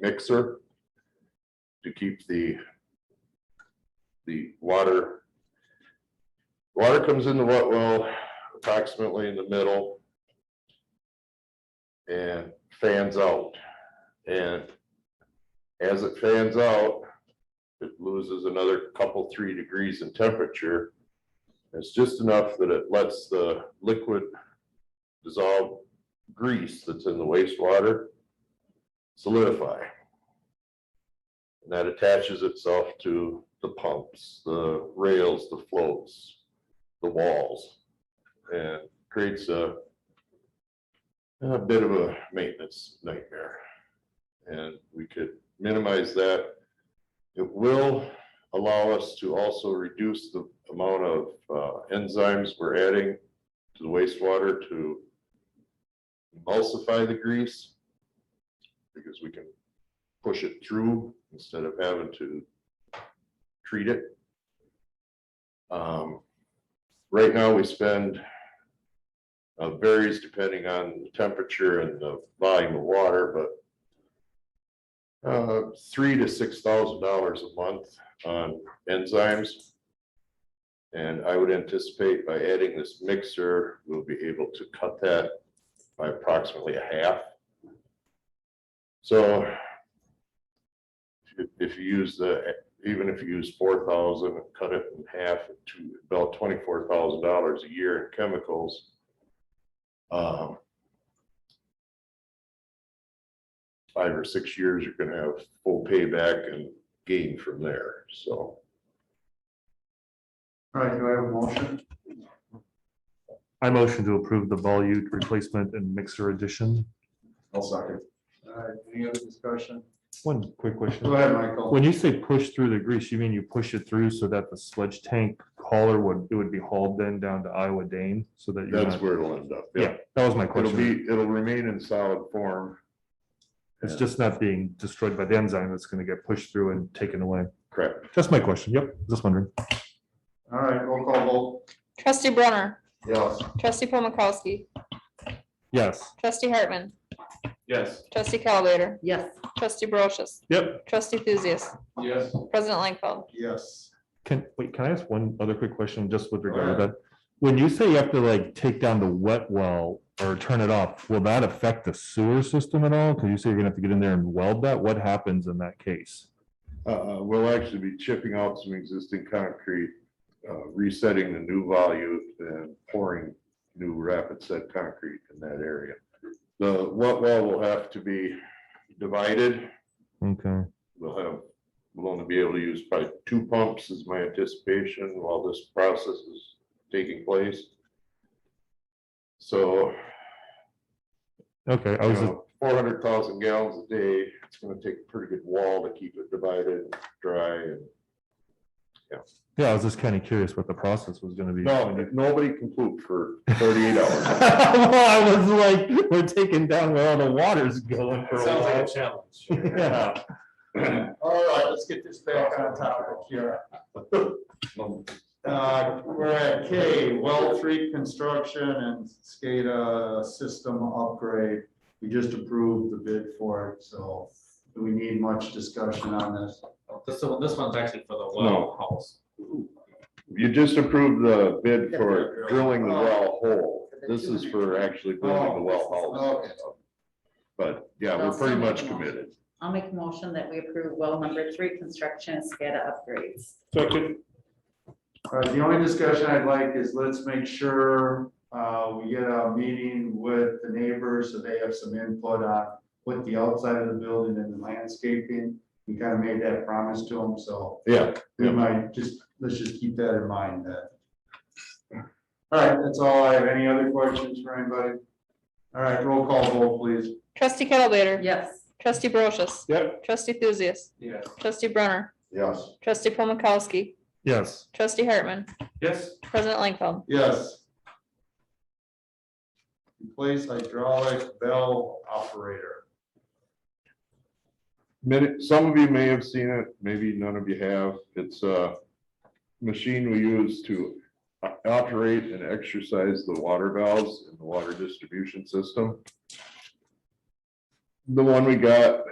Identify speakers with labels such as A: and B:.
A: mixer to keep the the water water comes in the wet well approximately in the middle and fans out. And as it fans out, it loses another couple, three degrees in temperature. It's just enough that it lets the liquid dissolve grease that's in the wastewater solidify. And that attaches itself to the pumps, the rails, the floats, the walls, and creates a a bit of a maintenance nightmare. And we could minimize that. It will allow us to also reduce the amount of uh, enzymes we're adding to the wastewater to emulsify the grease because we can push it through instead of having to treat it. Um, Right now, we spend uh, varies depending on the temperature and the volume of water, but uh, three to six thousand dollars a month on enzymes. And I would anticipate by adding this mixer, we'll be able to cut that by approximately a half. So if- if you use the, even if you use four thousand and cut it in half to about twenty-four thousand dollars a year in chemicals. um, Five or six years, you're gonna have full payback and gain from there, so.
B: All right, do I have a motion?
C: I motion to approve the volute replacement and mixer addition.
B: I'll second. All right, any other discussion?
C: One quick
B: Go
C: question.
B: ahead, Michael.
C: When you say push through the grease, you mean you push it through so that the sludge tank hauler would, it would be hauled then down to Iowa Dane so that you're
A: That's
C: not.
A: where it'll end up.
C: Yeah, that was my
A: It'll
C: question.
A: be, it'll remain in solid form,
C: It's just not being destroyed by the enzyme that's going to get pushed through and taken away.
A: correct?
C: That's my question. Yep, just wondering.
B: All right, roll call
D: Trustee Brunner,
B: vote. Yes.
D: trustee Paul Mikowski,
C: Yes.
D: trustee Hartman,
B: Yes.
D: trustee Calbater,
E: Yes,
D: trustee Brochus,
C: Yep.
D: trustee Thuzius,
B: Yes.
D: president Langfeld.
B: Yes.
C: Can, wait, can I ask one other quick question just with regard to
B: ahead.
C: that? When you say you have to like take down the wet well or turn it off, will that affect the sewer system at all? Cause you say you're gonna have to get in there and weld that. What happens in that case?
A: Uh, uh, we'll actually be chipping out some existing concrete, uh, resetting the new volute and pouring new rapid set concrete in that area. The wet well will have to be divided.
C: Okay,
A: We'll have, we'll only be able to use probably two pumps is my anticipation while this process is taking place. So,
C: okay, I
A: you
C: was, just-
A: know, four hundred thousand gallons a day, it's gonna take a pretty good wall to keep it divided, dry and
C: yeah, I was just kinda curious what the process was gonna be.
A: No, nobody can poop for thirty-eight hours.
C: I was like, we're taking down where all the water's going for a
F: Sounds like a
C: while.
F: challenge.
C: Yeah,
B: All right, let's get this back on topic here. Uh, We're at K, well three construction and SCADA system upgrade. We just approved the bid for it, so do we need much discussion on this?
F: This one, this one's actually for the well house.
A: You just approved the bid for drilling the well hole. This is for actually building the well hole.
B: Okay.
A: But yeah, we're pretty much committed.
E: I'll make a motion that we approve well number three, construction and SCADA upgrades.
B: All right, the only discussion I'd like is let's make sure uh, we get a meeting with the neighbors so they have some input on what the outside of the building and the landscaping. We kind of made that promise to them, so
A: Yeah,
B: we might just, let's just keep that in mind that. All right, that's all I have. Any other questions for anybody? All right, roll call vote, please.
D: Trustee Calbater,
E: Yes,
D: trustee Brochus,
A: Yep.
D: trustee Thuzius,
B: Yes.
D: trustee Brunner,
A: yes.
D: trustee Paul Mikowski,
C: yes.
D: trustee Hartman,
F: Yes.
D: president Langfeld.
B: Yes. Replace hydraulic valve operator.
A: Minute, some of you may have seen it, maybe none of you have. It's a machine we use to o- operate and exercise the water valves in the water distribution system. The one we got